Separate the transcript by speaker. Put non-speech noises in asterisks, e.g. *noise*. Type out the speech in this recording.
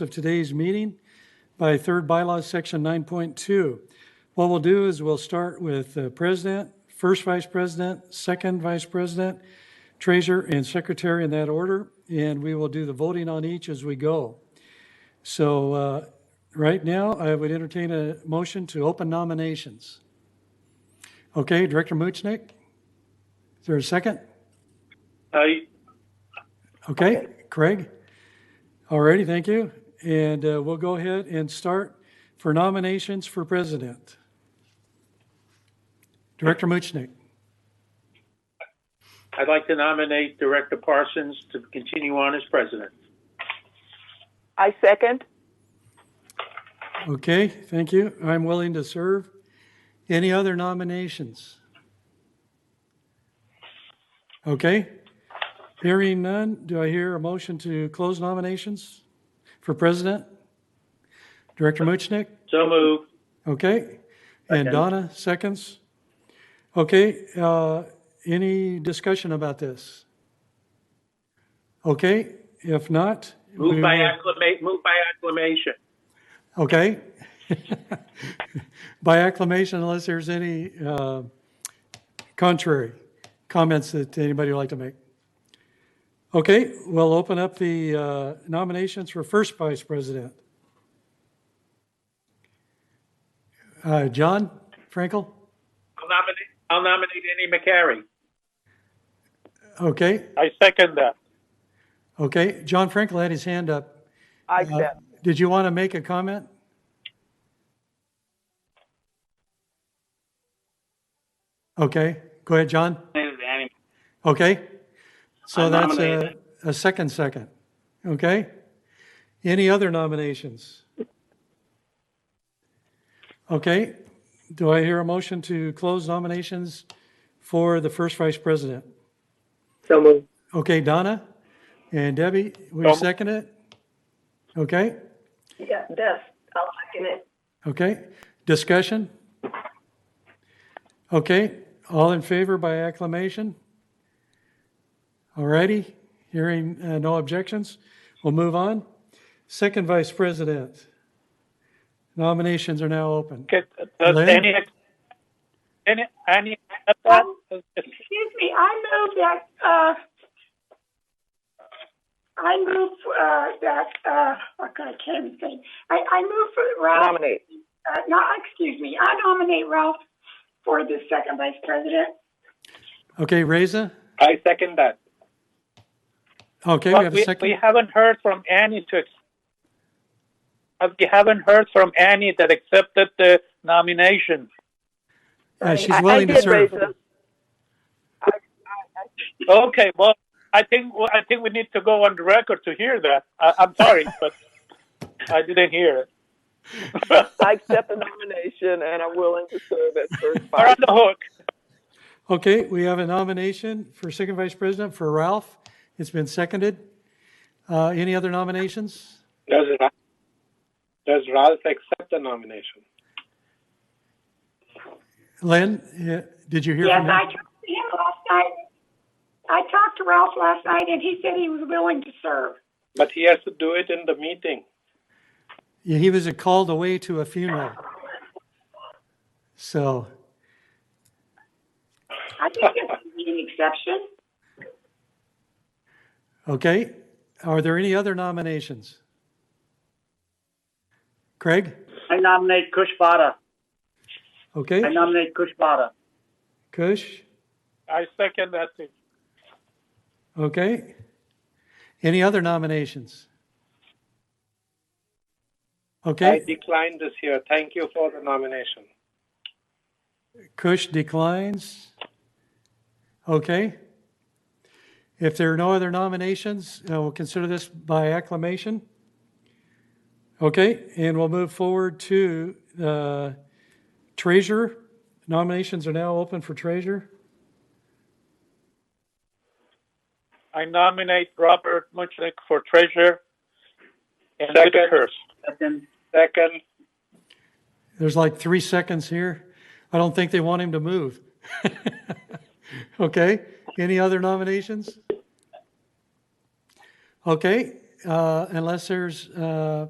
Speaker 1: of today's meeting by Third Bylaw, Section 9.2. What we'll do is we'll start with uh, President, First Vice President, Second Vice President, Treasurer, and Secretary in that order, and we will do the voting on each as we go. So uh, right now, I would entertain a motion to open nominations. Okay, Director Muchnick? Is there a second?
Speaker 2: I,
Speaker 1: Okay, Craig? All righty, thank you. And uh, we'll go ahead and start for nominations for president. Director Muchnick.
Speaker 2: I'd like to nominate Director Parsons to continue on as president.
Speaker 3: I second.
Speaker 1: Okay, thank you. I'm willing to serve. Any other nominations? Okay. Hearing none, do I hear a motion to close nominations for president? Director Muchnick?
Speaker 2: So move.
Speaker 1: Okay, and Donna, seconds. Okay, uh, any discussion about this? Okay, if not. we
Speaker 2: Move by
Speaker 1: will-
Speaker 2: acclama, move by acclamation.
Speaker 1: Okay. *laughs* By acclamation, unless there's any uh, contrary comments that anybody would like to make. Okay, we'll open up the uh, nominations for first vice president. Uh, John Frankel?
Speaker 2: I'll nominate, I'll nominate Annie McCary.
Speaker 1: Okay,
Speaker 2: I second that.
Speaker 1: okay. John Frankel had his hand up.
Speaker 3: I
Speaker 1: Uh,
Speaker 3: accept.
Speaker 1: Did you want to make a comment? Okay, go ahead, John. Okay. So that's a, a second second. Okay. Any other nominations? Okay. Do I hear a motion to close nominations for the first vice president?
Speaker 3: So moved.
Speaker 1: Okay, Donna and Debbie, will
Speaker 2: Um,
Speaker 1: you second it? Okay,
Speaker 4: Yeah, Beth, I'll second it.
Speaker 1: okay. Discussion? Okay, all in favor by acclamation? All righty, hearing uh, no objections, we'll move on. Second Vice President. Nominations are now open. Lynn?
Speaker 2: uh, Annie, Annie, Annie, uh,
Speaker 4: Um, Excuse me, I move that, uh, I move, uh, that, uh, oh God, I can't even think. I, I move for Ralph,
Speaker 3: Nominate.
Speaker 4: uh, no, excuse me, I nominate Ralph for the second vice president.
Speaker 1: Okay, Reza?
Speaker 2: I second that.
Speaker 1: Okay, we
Speaker 2: But
Speaker 1: have a
Speaker 2: we, we
Speaker 1: second.
Speaker 2: haven't heard from Annie to, ex- uh, we haven't heard from Annie that accepted the nomination.
Speaker 1: Uh,
Speaker 3: I-
Speaker 1: She's willing
Speaker 3: I
Speaker 1: to
Speaker 3: did
Speaker 1: serve.
Speaker 3: raise them.
Speaker 2: Okay, well, I think, well, I think we need to go on the record to hear that. I, I'm sorry, but I didn't *laughs* hear it.
Speaker 3: I accept the nomination and I'm willing to serve as first
Speaker 2: We're on
Speaker 3: vice.
Speaker 2: the hook.
Speaker 1: Okay, we have a nomination for second vice president for Ralph. It's been seconded. Uh, Any other nominations?
Speaker 5: Does Ra- does Ralph accept the nomination?
Speaker 1: Lynn, eh, did you hear
Speaker 4: Yes,
Speaker 1: from
Speaker 4: I
Speaker 1: him?
Speaker 4: talked to him last night. I talked to Ralph last night and he said he was willing to serve.
Speaker 5: But he has to do it in the meeting.
Speaker 1: Yeah, He was called away to a funeral. So,
Speaker 4: I think that's an exception.
Speaker 1: okay, are there any other nominations? Craig?
Speaker 2: I nominate Kushbara.
Speaker 1: Okay,
Speaker 2: nominate Kushbara.
Speaker 1: Kush?
Speaker 2: I second that. thing.
Speaker 1: Okay. Any other nominations?
Speaker 5: I
Speaker 1: Okay,
Speaker 5: decline this year. Thank you for the nomination.
Speaker 1: Kush declines. Okay. If there are no other nominations, uh, we'll consider this by acclamation. Okay, and we'll move forward to uh, treasurer. Nominations are now open for treasurer.
Speaker 2: I nominate Robert Muchnick for treasurer and
Speaker 5: Second.
Speaker 2: Whitaker.
Speaker 5: Second,
Speaker 1: There's like three seconds here. I don't think they want him to move. *laughs* okay. Any other nominations? Okay. uh, unless there's uh,